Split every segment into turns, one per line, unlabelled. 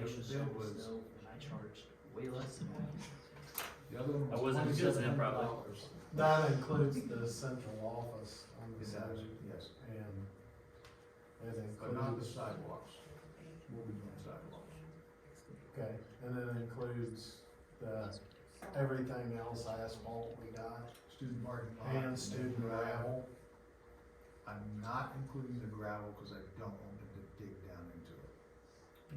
extra
bill
service
was-
though, and I charged way less than that.
The other one
That wasn't
was
just
$27.
improv.
That includes the central office on the
Is
side,
that- yes,
and it
but not the
includes,
sidewalks. We'll be doing sidewalks.
okay, and then it includes the, everything else asphalt we got,
Student parking lot.
and student gravel.
I'm not including the gravel because I don't want them to dig down into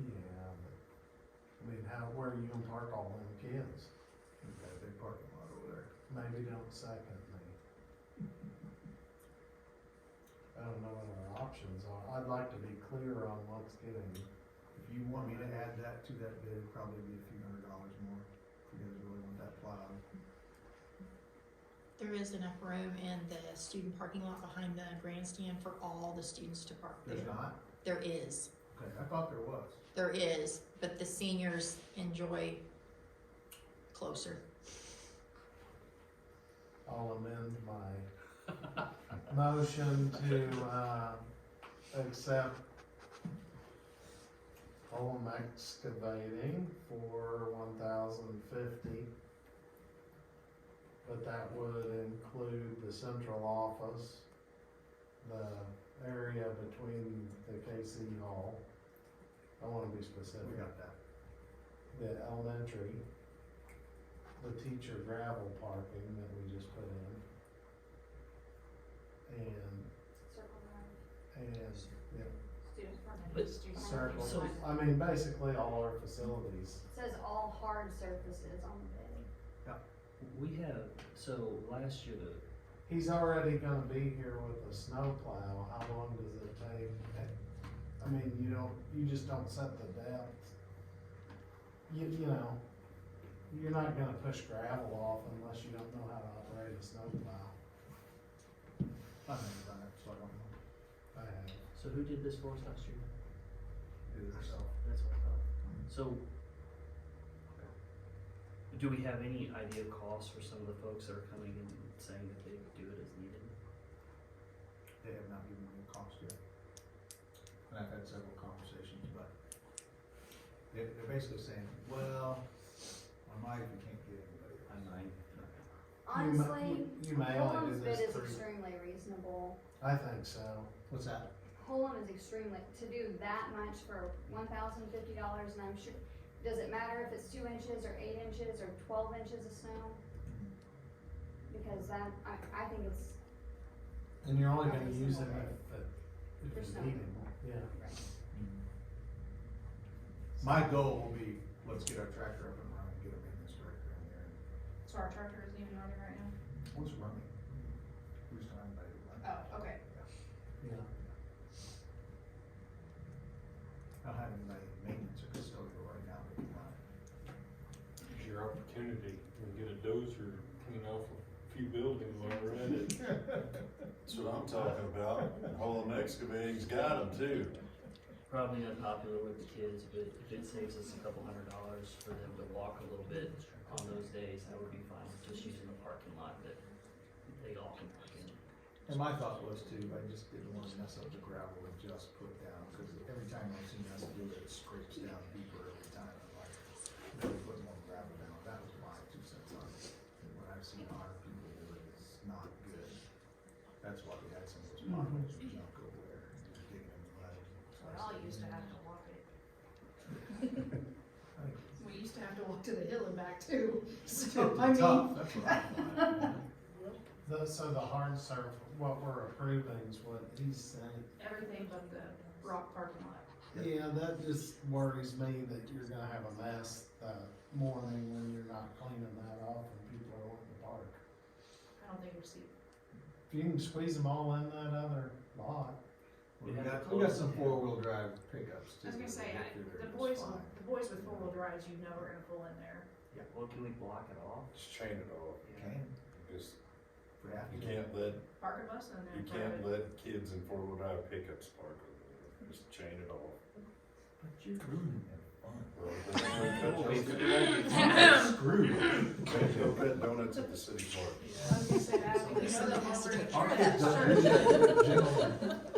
it.
Yeah, but, I mean, how, where are you gonna park all them kids?
We've got a big parking lot over there.
Maybe don't second me. I don't know what our options are, I'd like to be clear on what's getting,
If you want me to add that to that bid, it'd probably be a few hundred dollars more if you guys really want that plowed.
There is enough room in the student parking lot behind the grandstand for all the students to park there.
There's not?
There is,
Okay, I thought there was.
there is, but the seniors enjoy closer.
I'll amend my motion to, uh, accept Holm Excavating for one thousand fifty. But that would include the central office, the area between the KC Hall. I wanna be specific
We got that.
the elementary, the teacher gravel parking that we just put in. And,
Circle around,
and, yeah,
student
But-
permanent, student.
circle,
permanent.
I mean, basically all our facilities.
It Says all hard surfaces on the bid.
We have, so last year the,
He's already gonna be here with a snowplow, how long does it take? I mean, you don't, you just don't set the depth. You, you know, you're not gonna push gravel off unless you don't know how to operate a snowplow.
I've never done it, so I don't know.
I have.
so who did this for us last year?
Do it yourself.
That's what I thought. So, do we have any idea of cost for some of the folks that are coming and saying that they would do it as needed?
They have not given me a cost yet. And I've had several conversations, but they're, they're basically saying, well, I might if you can't get anybody. else."
might.
You may-
Honestly,
You may hmm, only do
Holland's bid
this
is
three,
extremely reasonable.
I think so.
What's that?
Holland is extremely, to do that much for one thousand fifty dollars and I'm sure, does it matter if it's two inches or eight inches or twelve inches of snow? Because that, I, I think it's,
And you're only
Not
gonna
a
use them
single day.
if,
For
if you
some.
need them, yeah.
My goal will be, let's get our tractor up and running, get them in this tractor in there.
So our tractor isn't even running right now?
What's running? Who's trying to run?
Oh, okay.
Yeah,
I don't have anybody in maintenance or custodial right now that can run it.
It's your opportunity to get a dozer, clean off a few buildings over in it.
uh,
That's what I'm talking about. Holland Excavating's got them too.
Probably unpopular with the kids, but if it saves us a couple hundred dollars for them to walk a little bit on those days, that would be fine, just using the parking lot that they all can park in.
And my thought was too, I just didn't want to mess up the gravel and just put down, because every time I've seen us do it, it scrapes down deeper every time. I'm like, maybe put more gravel down. That was my two cents on it. And When I've seen our people do it, it's not good. That's why we had some of those potholes and junk over there, and just digging in the mud.
We all used to have to walk it.
I think
We used to have to walk to the hill and back too, so
it's
I mean,
Tough, that's what I thought.
the, so the hard surf, what we're approving is what he's saying.
everything but the rock parking lot.
Yeah, that just worries me that you're gonna have a mess that morning when you're not cleaning that off and people are wanting to park.
I don't think we see,
If you can squeeze them all in that other lot,
We got, we got some four-wheel drive pickups
I
too.
was gonna say,
that
I-
we get through
the
there,
boys,
it's
with-
fine.
the boys with four-wheel drives, you know are gonna pull in there.
Well, can we block it off?
Just chain it off.
Can,
Just,
we have
you
to.
can't let,
Park a bus in there.
you
park it.
can't let kids in four-wheel drive pickups park over there. Just chain it off.
But you're ruining it.
Well, they- they go pet donuts at the city park.
I was gonna say that, we know that
Somebody has to
over
take
at
Our
church.
kids don't do that, they're gentle.